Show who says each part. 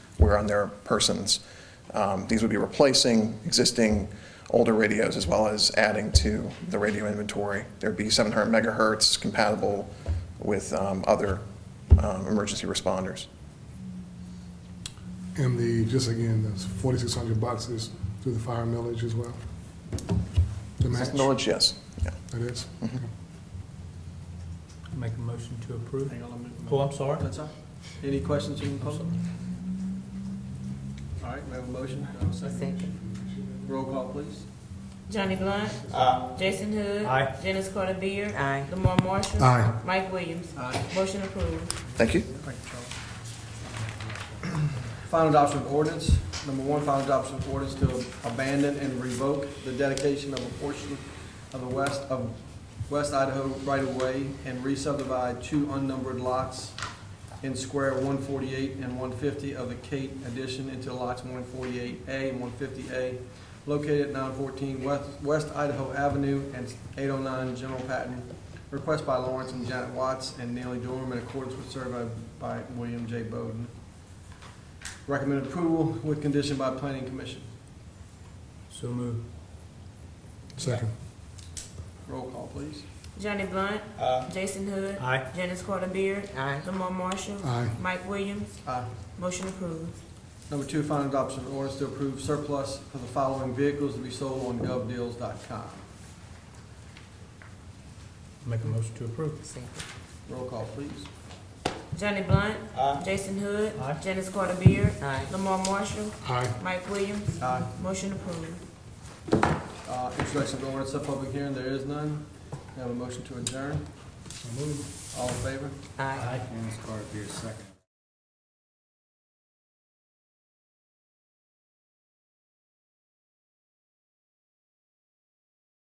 Speaker 1: were on their persons. Um, These would be replacing existing older radios as well as adding to the radio inventory. There'd be 700 megahertz compatible with um, other um, emergency responders.
Speaker 2: And the, just again, those 4,600 boxes through the fire millage as well? The
Speaker 1: Is
Speaker 2: match?
Speaker 1: that knowledge? Yes. Yeah.
Speaker 2: That is?
Speaker 3: Make a motion to approve.
Speaker 4: Hang on a minute.
Speaker 3: Oh, I'm sorry.
Speaker 4: That's all. Any questions from the public? All right, we have a motion. Do I have a second?
Speaker 5: Second.
Speaker 4: Roll call, please.
Speaker 5: Johnny Blunt. Jason Hood.
Speaker 3: Aye.
Speaker 5: Dennis Carter Beard.
Speaker 6: Aye.
Speaker 5: Lamar Marshall.
Speaker 2: Aye.
Speaker 5: Mike Williams.
Speaker 4: Aye.
Speaker 5: Motion approved.
Speaker 1: Thank you.
Speaker 4: Thank you, Charles. Final adoption of ordinance. Number one, final adoption of ordinance to abandon and revoke the dedication of a portion of the west of West Idaho right-of-way and re-subdivide two unnumbered lots in square one forty-eight and one fifty of the Kate addition into lots one forty-eight A and one fifty A located at nine fourteen West, West Idaho Avenue and eight oh nine General Patton. Request by Lawrence and Janet Watts and Neely Dorm in accordance with survey by William J. Bowden. Recommended approval with condition by planning commission.
Speaker 3: So moved.
Speaker 2: Second.
Speaker 4: Roll call, please.
Speaker 5: Johnny Blunt. Jason Hood.
Speaker 3: Aye.
Speaker 5: Dennis Carter Beard.
Speaker 6: Aye.
Speaker 5: Lamar Marshall.
Speaker 2: Aye.
Speaker 5: Mike Williams.
Speaker 4: Aye.
Speaker 5: Motion approved.
Speaker 4: Number two, final adoption of ordinance to approve surplus for the following vehicles to be sold on govdeals.com.
Speaker 3: Make a motion to approve.
Speaker 6: Second.
Speaker 4: Roll call, please.
Speaker 5: Johnny Blunt. Jason Hood.
Speaker 3: Aye.
Speaker 5: Dennis Carter Beard.
Speaker 6: Aye.
Speaker 5: Lamar Marshall.
Speaker 2: Aye.
Speaker 5: Mike Williams.
Speaker 4: Aye.
Speaker 5: Motion approved.
Speaker 4: Uh, Introduction of ordinance, sub public hearing, there is none. May I have a motion to adjourn? All in favor?
Speaker 6: Aye.
Speaker 7: Dennis Carter, Beer, second.